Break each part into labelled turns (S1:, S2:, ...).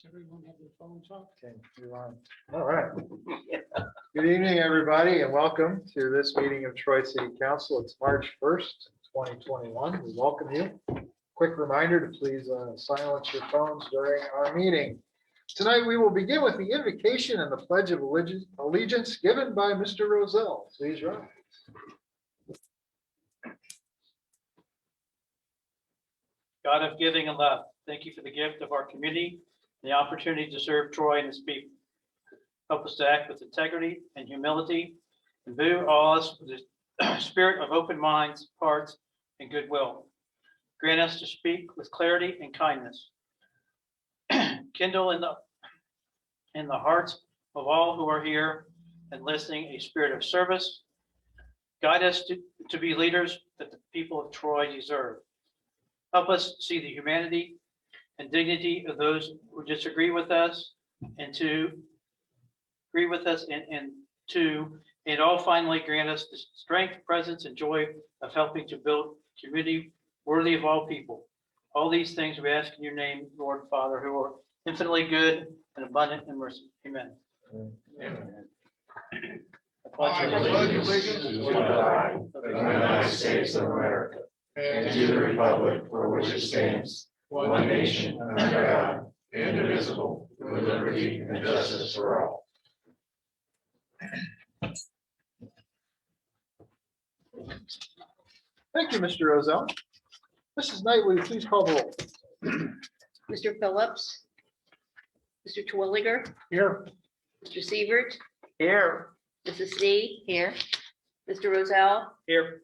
S1: Does everyone have their phones up?
S2: Okay, you're on. All right. Good evening, everybody, and welcome to this meeting of Troy City Council. It's March 1st, 2021. We welcome you. Quick reminder to please uh, silence your phones during our meeting. Tonight, we will begin with the invocation and the pledge of Allegi- allegiance given by Mr. Roselle. Please rise.
S3: God of giving and love, thank you for the gift of our community, and the opportunity to serve Troy and its people. Help us to act with integrity and humility, and view all us with the spirit of open minds, hearts, and goodwill. Grant us to speak with clarity and kindness. Kindle in the, in the hearts of all who are here and listening, a spirit of service. Guide us to, to be leaders that the people of Troy deserve. Help us see the humanity and dignity of those who disagree with us and to agree with us and, and to, and all finally grant us the strength, presence, and joy of helping to build community worthy of all people. All these things we ask in your name, Lord Father, who are infinitely good and abundant in mercy. Amen. I pledge
S4: I
S3: allegiance-
S4: pledge allegiance to the flag of the United States of America and to the republic for which it stands, one nation under God, indivisible, with liberty and justice for all.
S2: Thank you, Mr. Roselle. Mrs. Knight, will you please call the roll?
S5: Mr. Phillips. Mr. Twilliger,
S2: Here.
S5: Mr. Sievert,
S3: Here.
S5: Mrs. C. Here. Mr. Rozell,
S3: Here.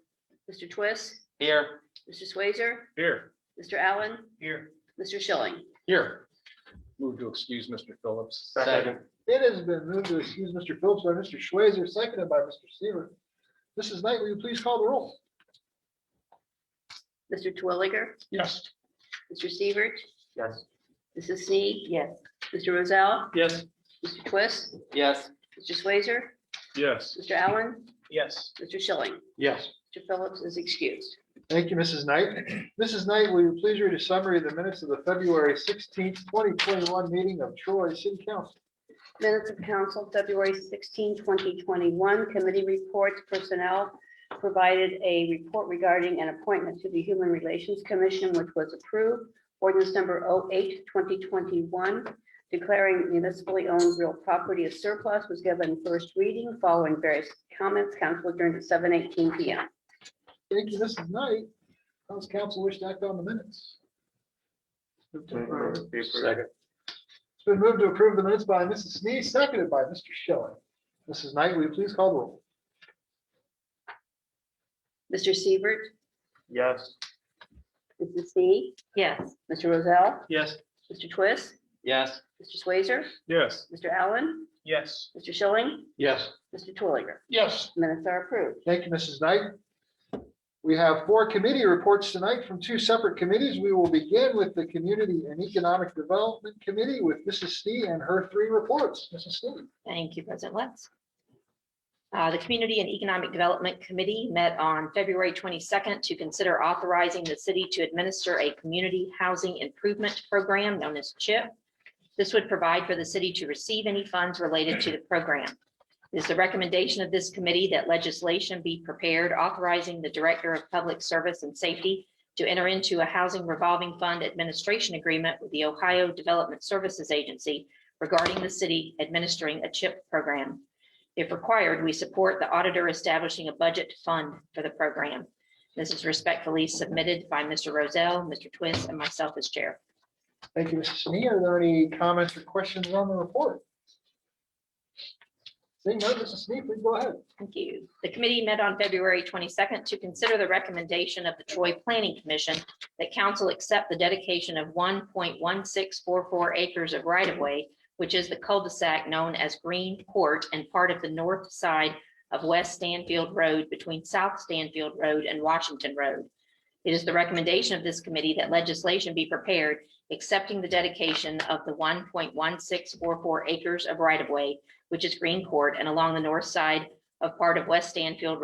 S5: Mr. Twist,
S3: Here.
S5: Mr. Swazer,
S3: Here.
S5: Mr. Allen,
S3: Here.
S5: Mr. Schilling.
S2: Here. Move to excuse Mr. Phillips.
S3: Second.
S2: It has been moved to excuse Mr. Phillips by Mr. Schweizer, seconded by Mr. Seaver. Mrs. Knight, will you please call the roll?
S5: Mr. Twilliger,
S2: Yes.
S5: Mr. Sievert,
S3: Yes.
S5: Mrs. C. Yes. Mr. Rozell,
S3: Yes.
S5: Mr. Twist,
S3: Yes.
S5: Mr. Swazer,
S2: Yes.
S5: Mr. Allen,
S3: Yes.
S5: Mr. Schilling.
S2: Yes.
S5: Mr. Phillips is excused.
S2: Thank you, Mrs. Knight. Mrs. Knight, will you please read a summary of the minutes of the February sixteenth, twenty twenty-one meeting of Troy City Council?
S5: Minutes of Council, February 16, 2021, Committee Reports Personnel provided a report regarding an appointment to the Human Relations Commission, which was approved. Ordinance number 08, 2021, declaring municipally owned real property as surplus was given first reading following various comments. Council adjourned at 7:18 PM.
S2: Thank you, Mrs. Knight. How does council wish to act on the minutes? Move to approve.
S3: Second.
S2: It's been moved to approve the minutes by Mrs. Snee, seconded by Mr. Schilling. Mrs. Knight, will you please call the roll?
S5: Mr. Sievert,
S3: Yes.
S5: Mrs. C. Yes. Mr. Rozell,
S3: Yes.
S5: Mr. Twist,
S3: Yes.
S5: Mr. Swazer,
S2: Yes.
S5: Mr. Allen,
S3: Yes.
S5: Mr. Schilling,
S2: Yes.
S5: Mr. Twilliger.
S2: Yes.
S5: Minutes are approved.
S2: Thank you, Mrs. Knight. We have four committee reports tonight from two separate committees. We will begin with the Community and Economic Development Committee with Mrs. Stee and her three reports. Mrs. Stee.
S6: Thank you, President Letts. Uh, The Community and Economic Development Committee met on February 22nd to consider authorizing the city to administer a community housing improvement program known as CHIP. This would provide for the city to receive any funds related to the program. It is the recommendation of this committee that legislation be prepared authorizing the Director of Public Service and Safety to enter into a housing revolving fund administration agreement with the Ohio Development Services Agency regarding the city administering a CHIP program. If required, we support the auditor establishing a budget fund for the program. This is respectfully submitted by Mr. Rozell, Mr. Twist, and myself as chair.
S2: Thank you, Mrs. Snee. Are there any comments or questions on the report? Seeing none, Mrs. Snee, please go ahead.
S6: Thank you. The committee met on February 22nd to consider the recommendation of the Troy Planning Commission that council accept the dedication of 1.1644 acres of right-of-way, which is the cul-de-sac known as Green Court and part of the north side of West Stanfield Road between South Stanfield Road and Washington Road. It is the recommendation of this committee that legislation be prepared accepting the dedication of the 1.1644 acres of right-of-way, which is Green Court and along the north side of part of West Stanfield